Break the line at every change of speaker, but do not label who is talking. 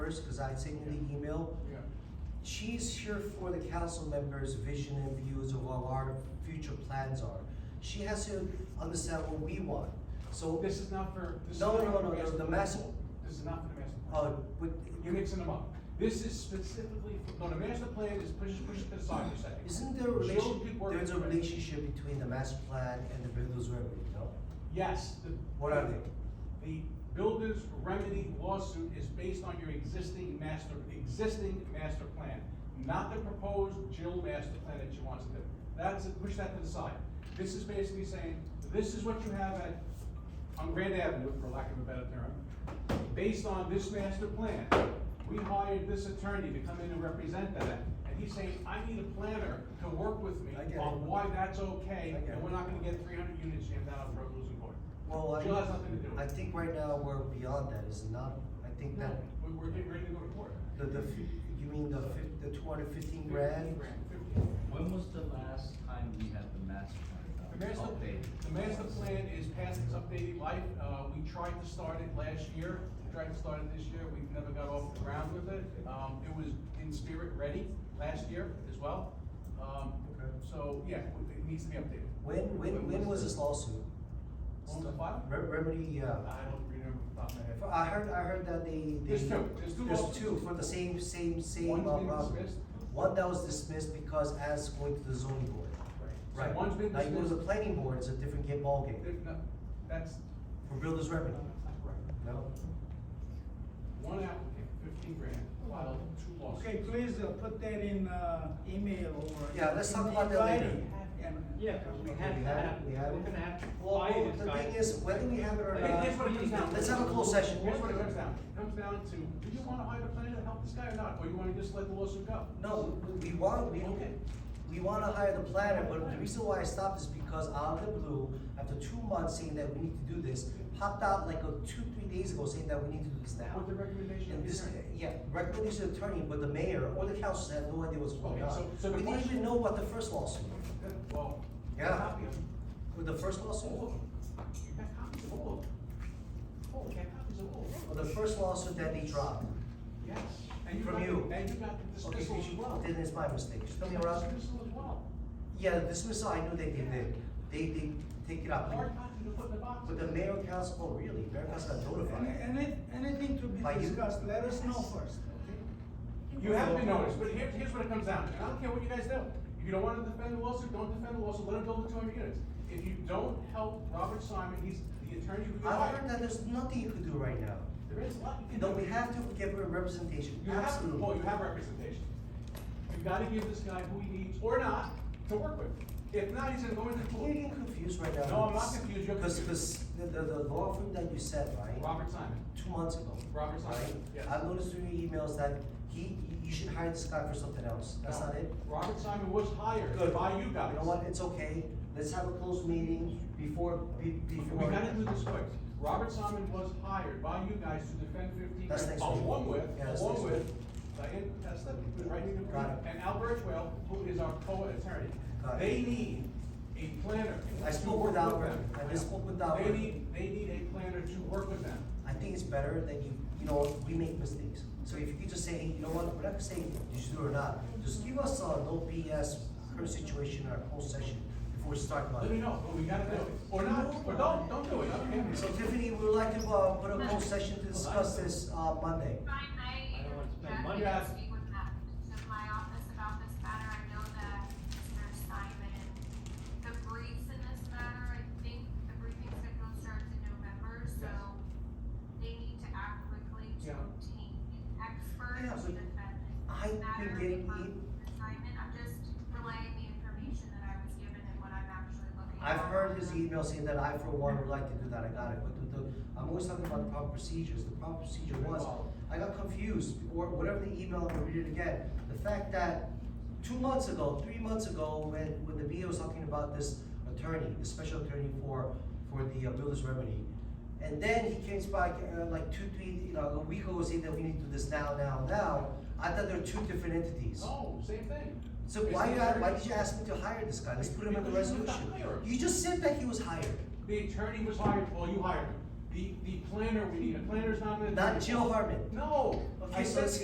first, cause I'd sent you the email.
Yeah,
She's here for the council members' vision and views of what our future plans are. She has to understand what we want, so,
this is not for, this is
no,
not
no,
for
no, no, the
plan.
master,
This is not for the master plan.
uh, but.
You're mixing them up. This is specifically, for- no, the master plan is push, push it aside for a second.
Isn't there a
She'll
relation,
keep working
there's a
with it.
relationship between the master plan and the builder's remedy, no?
Yes. the-
What are they?
The builder's remedy lawsuit is based on your existing master, existing master plan, not the proposed Jill master plan that she wants to do. That's, push that to the side. This is basically saying, this is what you have at, on Grand Avenue, for lack of a better term. Based on this master plan, we hired this attorney to come in and represent that. And he's saying, I need a planner to work with me
I get it.
on why that's okay,
I get
and
it.
we're not gonna get three hundred units jammed out of road losing court.
Well,
Jill has nothing to do with
I, I
it.
think right now we're beyond that, is it not? I think
No,
that,
we- we're getting ready to go to court.
the, the, f- you mean the fif- the two hundred fifteen grand?
Fifteen.
When was the last time we had the master
The
plan done?
master,
Updated?
the master plan is past its updated life, uh, we tried to start it last year, tried to start it this year, we've never got off the ground with it. Um, it was in spirit ready last year as well, um,
Okay.
so, yeah, it needs to be updated.
When, when, when was this lawsuit?
On the file?
Re- Remedy, yeah.
I don't remember off the top of my
I
head.
heard, I heard that they, they.
There's two. There's two lawsuits.
two for the same, same, same, uh,
One's been
problem.
dismissed.
One that was dismissed because as going to the zoning board.
Right. So one's been
Now, you go to the
dismissed.
planning board, it's a different game ballgame,
There- no, that's,
for builder's
no,
remedy,
that's not correct.
no?
One applicant, fifteen grand, filed two lawsuits.
Okay, please uh, put that in, uh, email or.
Yeah, let's talk
in
about that later.
writing. And-
Yeah, 'cause we
Okay,
have
we
to
have it,
have,
we
we're
have it.
gonna have to
Well,
buy
well,
this
the
guy.
thing is, whether we have it or
Okay, here's what it comes down
not,
to.
let's have a closed session.
Here's what it comes down, to. comes down to, do you wanna hire a planner to help this guy or not, or you wanna just let the lawsuit go?
No, we we want, we,
Okay.
we wanna hire the planner, but the reason why I stopped is because out of the blue, after two months saying that we need to do this, popped out like a two, three days ago saying that we need to do this now.
With the recommendation of
And
the
this,
attorney.
yeah, recommendation of attorney, but the mayor or the council had no idea what's going
Okay, so-
on.
so the
We didn't
question-
even know what the first lawsuit,
Well.
Yeah.
you got copy of them.
with the first lawsuit,
All of them, you got copies of all of them. Oh, you got copies of all of
or
them.
the first lawsuit that they dropped.
Yes, and you
From
got, the-
you.
and you got the
Okay,
dismissal as well.
then it's my mistake, should
You
me
got
around?
the Dismissal as well,
Yeah, the dismissal, I knew they did, it. they, they take it up,
hard copy to put in the box.
but the mayor and council, oh really, mayor and council got
Any,
notified.
any- anything to
By
be
you?
discussed, let us know first, okay?
You have been noticed, but here, here's what it comes down to, and I don't care what you guys do. If you don't wanna defend the lawsuit, don't defend the lawsuit, let him build the two hundred units. If you don't help Robert Simon, he's the attorney who
I
hired.
heard that there's nothing you could do right now.
There is a lot you can do.
No, we have to give her representation,
You have,
absolutely.
well, you have representation. You've gotta give this guy who he needs, or not, to work with. If not, he's gonna go into
You're
court.
getting confused right now.
No, I'm not confused, you're
Cause,
confused.
'cause the, the, the law firm that you said, right,
Robert Simon.
two months ago.
Robert Simon,
right?
yes.
I noticed through your emails that he, you should hire this guy for something else, that's
No.
not it?
Robert Simon was hired
Good.
by you guys.
You know what, it's okay, let's have a closed meeting before, be, before.
We gotta do this quick. Robert Simon was hired by you guys to defend fifteen
That's
grand,
next week.
along with,
Yeah, that's
along
next week.
with Diane Testa, who's writing the brief,
Got it.
and Albert Well, who is our co-attorney.
Got it.
They need a planner.
I
to
spoke with
work
Albert.
them.
I just spoke with
They
Albert.
need, they need a planner to work with them.
I think it's better that you, you know, we make mistakes. So if you could just say, hey, you know what, we're not saying you should do it or not, just give us a no BS current situation or whole session before we start about
Let
it.
me know, but we gotta do it, or not, or don't, don't do it, I don't care.
So Tiffany, we would like to, uh, put a whole session to discuss this, uh, Monday.
Brian, may I
I don't wanna spend
interject
money.
and speak with Matt in my office about this matter? I know that Mr. Simon, the briefs in this matter, I think the briefing schedule starts in November, so they need to act quickly to
Yeah.
obtain an
Yeah,
expert to
but
defend
I've
this
been
matter.
getting e-
from Mr. Simon, I'm just relaying the information that I was given and what I'm actually looking at.
I've heard his email saying that I for one would like to do that, I got it, but the, the, I'm always talking about the proper procedures, the proper procedure was, I got confused, or whatever the email, I'll read it again. The fact that two months ago, three months ago, when, when the BA was talking about this attorney, the special attorney for, for the uh, builder's remedy, and then he came back, uh, like two, three, you know, a week ago saying that we need to do this now, now, now, I thought there were two different entities.
No, same thing.
So why you, why did you ask me to hire this guy? Let's put him in the
Because you were the
resolution.
hirer.
You just said that he was hired.
The attorney was hired, well, you hired him.
The, the planner, we need a planner's not gonna. do
Not
it.
Jill Hartman.
No, I
Okay, so
said
it's-